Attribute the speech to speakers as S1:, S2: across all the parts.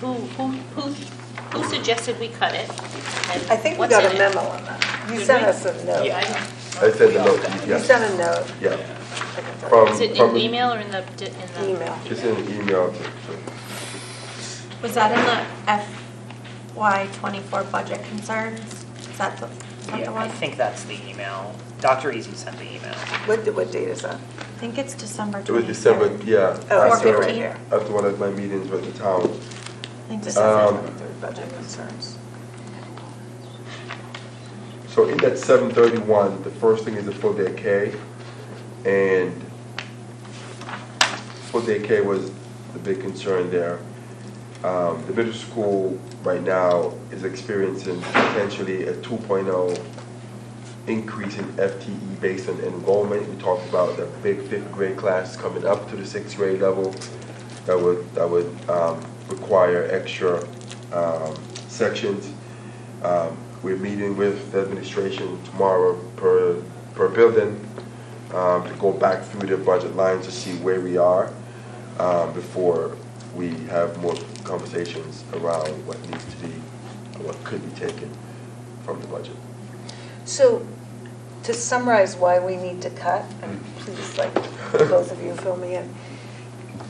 S1: who, who, who, who suggested we cut it? and
S2: I think we
S1: what's
S2: got
S1: in
S2: a
S1: it?
S2: memo on that. You
S1: Did
S2: sent
S1: we?
S2: us a note.
S1: Yeah, I
S3: I
S1: don't.
S3: said
S1: we
S3: the
S1: all
S3: note,
S1: got it.
S2: You
S3: yeah.
S2: sent a note.
S3: Yeah.
S2: I can find
S3: From-
S1: Is it in
S3: from-
S1: email or in the, di- in the?
S2: Email.
S3: It's in the email to, to-
S4: Was that in the FY twenty-four budget concerns? Is that the, is that the
S5: Yeah, I
S4: one?
S5: think that's the email. Dr. Easy sent the email.
S2: What, what date is that?
S4: I think it's December
S3: it was
S4: twenty-third.
S3: December, yeah.
S2: Oh, I see it
S3: after-
S2: right here.
S3: After one of my meetings with the town.
S4: I think this is
S3: Um,
S4: it.
S2: Third budget concerns.
S3: So in that seven thirty-one, the first thing is the full day K, and full day K was the big concern there. Um, the middle school right now is experiencing potentially a two oh increase in FTE based on enrollment. We talked about the big fifth grade class coming up to the sixth grade level. That would, that would, um, require extra, um, sections. Um, We're meeting with the administration tomorrow per, per building, um, to go back through the budget lines to see where we are, um, before we have more conversations around what needs to be, and what could be taken from the budget.
S2: So to summarize why we need to cut, and please, like, both of you fill me in.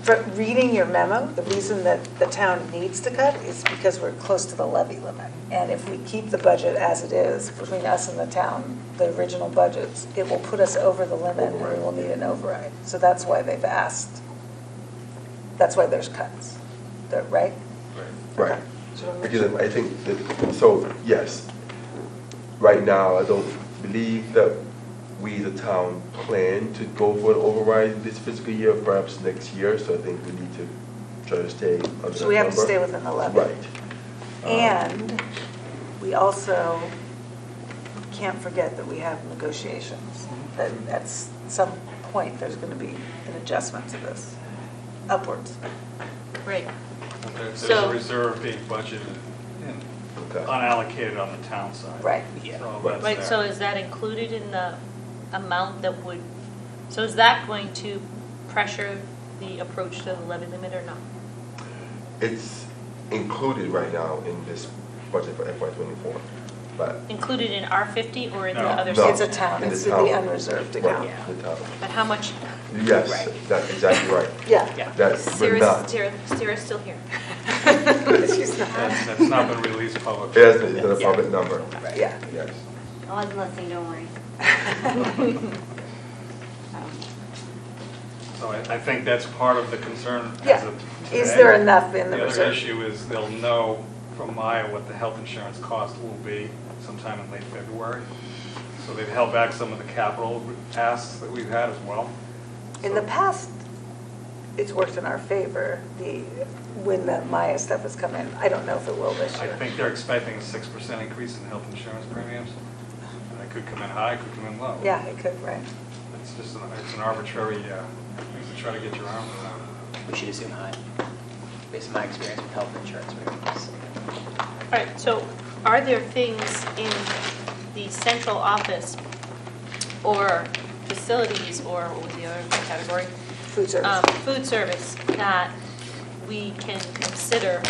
S2: From reading your memo, the reason that the town needs to cut is because we're close to the levy limit. And if we keep the budget as it is, between us and the town, the original budgets, it will put us over the limit and we will need an override. So that's why they've asked, that's why there's cuts, They're- right?
S3: Right.
S2: So I'm not
S3: Because I think that, so, yes, right now, I don't believe that we as a town plan to go for an override this fiscal year, perhaps next year, so I think we need to try to stay under that number.
S2: So we have to stay within the levy.
S3: Right. Um,
S2: And we also can't forget that we have negotiations, that at s- some point, there's going to be an adjustment to this upwards.
S1: Right.
S6: There's there's
S1: So-
S6: a reserve being budgeted and
S3: Okay.
S6: unallocated on the town side.
S2: Right.
S5: Yeah.
S6: So that's
S1: Right,
S6: there.
S1: so is that included in the amount that would, so is that going to pressure the approach to the levy limit or not?
S3: It's included right now in this budget for FY twenty-four, but.
S1: Included in R fifty or in the
S6: No.
S1: other?
S3: No,
S2: It's a town,
S3: in
S2: it's in the unreserved account.
S3: Right, the town.
S1: But how much,
S3: Yes,
S5: Right.
S3: that's exactly right.
S2: Yeah.
S5: Yeah.
S3: That's, but
S1: Sarah's,
S3: not.
S1: Sarah- Sarah's still here.
S2: She's
S6: That's,
S2: not,
S6: that's not been released
S3: It
S6: publicly.
S3: hasn't, it's not a public number,
S2: yeah.
S3: yes.
S7: I'll have nothing, don't worry. Um,
S6: So I, I think that's part of the concern as
S2: Yeah.
S6: of today.
S2: Is there enough in the
S6: other
S2: reserve?
S6: issue is they'll know from Maya what the health insurance cost will be sometime in late February. So they've held back some of the capital asks that we've had as well.
S2: In
S6: So-
S2: the past, it's worked in our favor, the, when the Maya stuff has come in. I don't know if it will this
S6: I
S2: year.
S6: think they're expecting a six percent increase in health insurance premiums. And It could come in high, it could come in low.
S2: Yeah, it could, right.
S6: It's just, an it's an arbitrary, uh, thing to try to get your arms around.
S5: We should assume high, based on my experience with health insurance premiums.
S1: All right, so are there things in the central office or facilities or what was the other category?
S2: Food service.
S1: Um, Food service that we can consider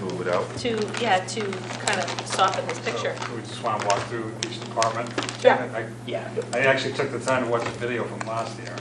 S3: Do it without.
S1: to, yeah, to kind of soften this picture?
S6: So We just want to walk through each department.
S2: Yeah.
S6: I-
S5: Yeah.
S6: I actually took the time to watch the video from last year.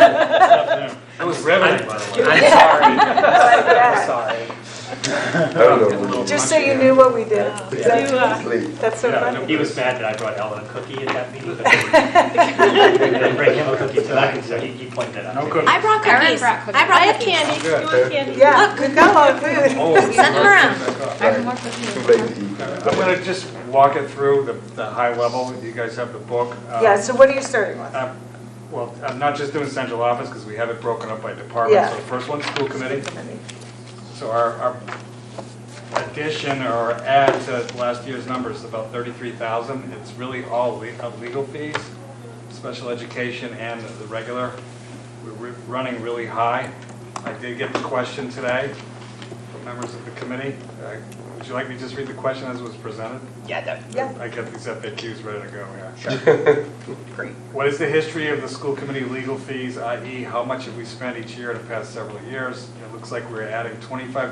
S6: It was riveting, by the way.
S5: I'm sorry. I'm
S3: I don't know.
S2: Just so you knew what we did.
S1: Do, uh,
S3: Please.
S2: That's so
S8: Yeah,
S2: funny.
S8: He was mad that I brought Ellen a cookie at that meeting. but I didn't bring him a cookie tonight, so he he pointed that out.
S6: No
S8: to me.
S6: cookie.
S4: I brought cookies.
S7: brought cookies.
S4: I
S1: I
S4: brought
S1: have
S4: cookies.
S1: candy, you
S3: Yeah,
S1: want candy?
S2: Yeah,
S3: fair.
S2: we got a lot of food.
S6: Oh,
S4: Send them around.
S6: back up.
S7: Everyone for
S3: Too
S7: me.
S3: late to eat.
S6: I'm going to just walk it through the, the high level. You guys have the book. Uh,
S2: Yeah, so what are you starting with?
S6: I'm- Well, I'm not just doing central office because we have it broken up by department.
S2: Yeah.
S6: So the first one's school committee. So our, our addition or add to last year's numbers is about 33,000. It's really all le- of legal fees, special education and the regular. We're re- running really high. I did get the question today from members of the committee. Uh, Would you like me to just read the question as it was presented?
S5: Yeah, that,
S2: Yeah.
S6: I got these FAQs ready to go, yeah.
S5: great.
S6: What is the history of the school committee e, legal fees, i.e. how much have we spent each year in the past several years? It looks like we're adding 25